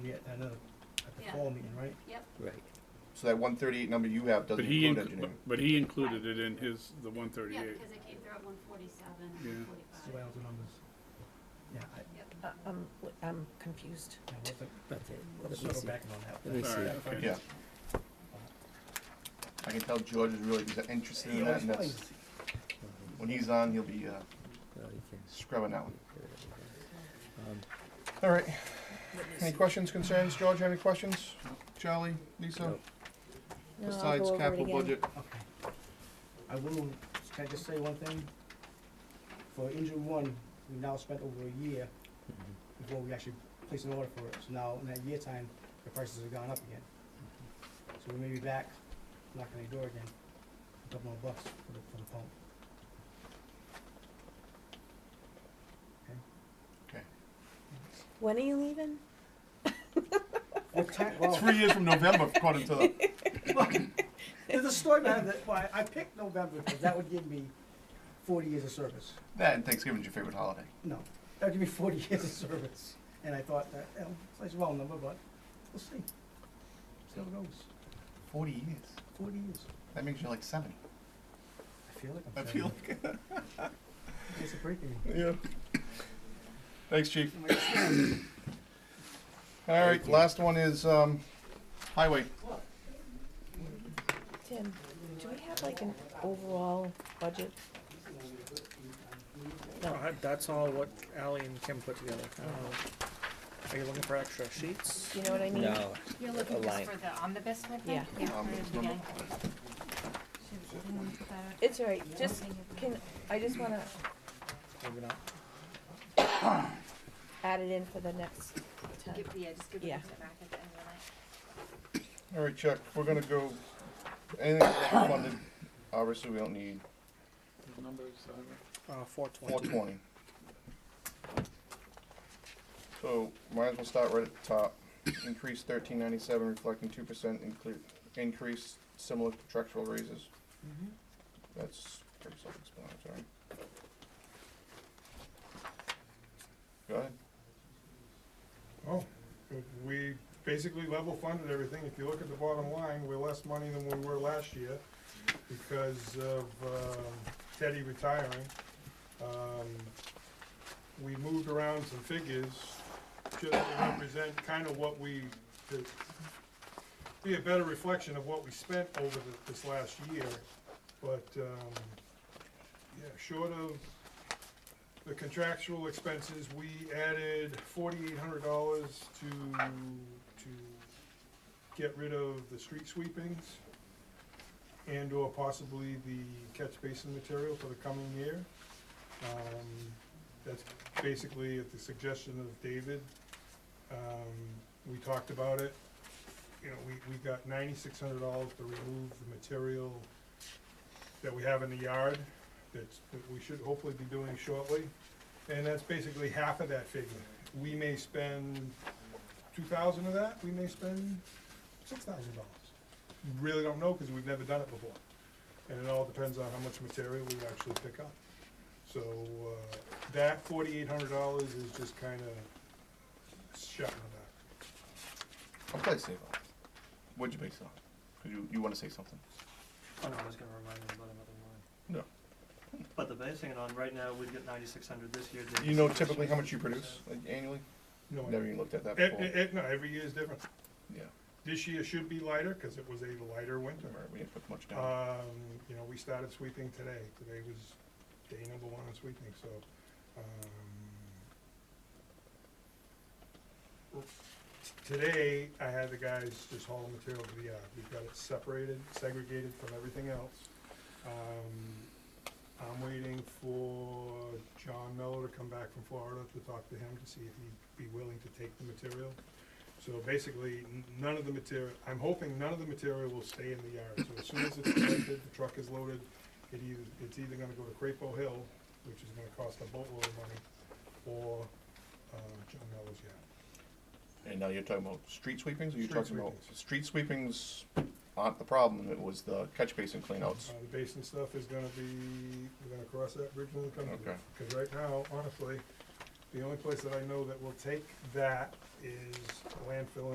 Yeah, I know, at the Yeah. fall meeting, right? Yep, Right. So that one thirty-eight number you have doesn't But he, include inc- engineering. but- but he included it in his, the one yeah, thirty-eight. because it came through at one forty-seven, Yeah. one forty-five. Swales and numbers. Yeah, I, Yep, Uh, I'm, I'm confused. yeah, let's, That's it. Let let's me circle see. back on that. Let me That's- see. that Alright, finance- Yeah. I can tell George is really, he's interested He in that, always and that's, finds- when he's on, he'll be, uh, No, you can't. scrubbing that one. Um, All right. Any questions, concerns? George, any questions? Charlie, Lisa? Um, no. No, I'll go Besides over it capital again. budget, Okay. I will, can I just say one thing? For engine one, we now spent over a year Mhm. before we actually placed an order for it. So now, in that year time, the prices have gone up again. Mm-hmm. So we may be back knocking on the door again, a couple more bucks for the, for the pump. When are you leaving? What time, Oh. well, three years from November, according to the, there's a story behind that, why I picked November, because that would give me forty years of service. that and Thanksgiving's your favorite holiday. No, that would give me forty years of service. And I thought that, you know, it's a wrong number, but we'll see. See how it goes. Forty years. Forty years. That makes you like seventy. I feel like I I'm feel seventy. like, It's a breaking. yeah. Thanks, chief. I'm like, All right, last one is, um, highway. Tim, do we have like an overall budget? No, Uh, That's all what Ally and Kim put together. Uh, Are you looking for extra sheets? you know what I mean? No, You're looking just Align. for the omnibus one? Yeah. Yeah. Omnibus number. It's all right, just, can, I just wanna Maybe not. add it in for the next time. Give, yeah, just give Yeah. it back at the end of the night. All right, Chuck, we're gonna go, anything that's funded, obviously we don't need Uh, four twenty. four twenty. So, might as well start right at the top, increase thirteen ninety-seven reflecting two percent include, increase similar contractual raises. Mm-hmm. That's pretty self-explanatory. Go ahead. Well, we basically level funded everything. If you look at the bottom line, we're less money than we were last year because of um, Teddy retiring. Um, We moved around some figures just to represent kind of what we, to be a better reflection of what we spent over the- this last year. But, um, yeah, short of the contractual expenses, we added forty-eight hundred dollars to, to get rid of the street sweepings and or possibly the catch basin material for the coming year. Um, that's basically at the suggestion of David. Um, we talked about it. You know, we, we got ninety-six hundred dollars to remove the material that we have in the yard that's, that we should hopefully be doing shortly. And that's basically half of that figure. We may spend two thousand of that, we may spend six thousand dollars. Really don't know, because we've never done it before. And it all depends on how much material we actually pick up. So, uh, that forty-eight hundred dollars is just kinda shot in the dark. I'm quite safe on this. What'd you base it on? Cause you, you wanna say something? Oh, no, I was gonna remind them about another line. No. But the basing it on, right now, we've got ninety-six hundred this year. they- You know typically how much you produce, like annually? No, Never even looked at that e- before. e- e- no, every year is different. Yeah, This year should be lighter, because it was a lighter winter. All right, we didn't put much down. Um, you know, we started sweeping today, today was day number one on sweeping, so, um, today, I had the guys just haul material to the yard, we've got it separated, segregated from everything else. Um, I'm waiting for John Miller to come back from Florida to talk to him to see if he'd be willing to take the material. So basically, n- none of the material, I'm hoping none of the material will stay in the yard, so as soon as it's collected, the truck is loaded, it either, it's either gonna go to Crapo Hill, which is gonna cost a boatload of money, or, uh, John Mello's yard. And now you're talking about street sweepings, or you're Street talking about, sweepings. street sweepings aren't the problem, it was the catch basin cleanouts. Uh, the basin stuff is gonna be, we're gonna cross that bridge when we come to it. Okay. Cause right now, honestly, The only place that I know that will take that is landfill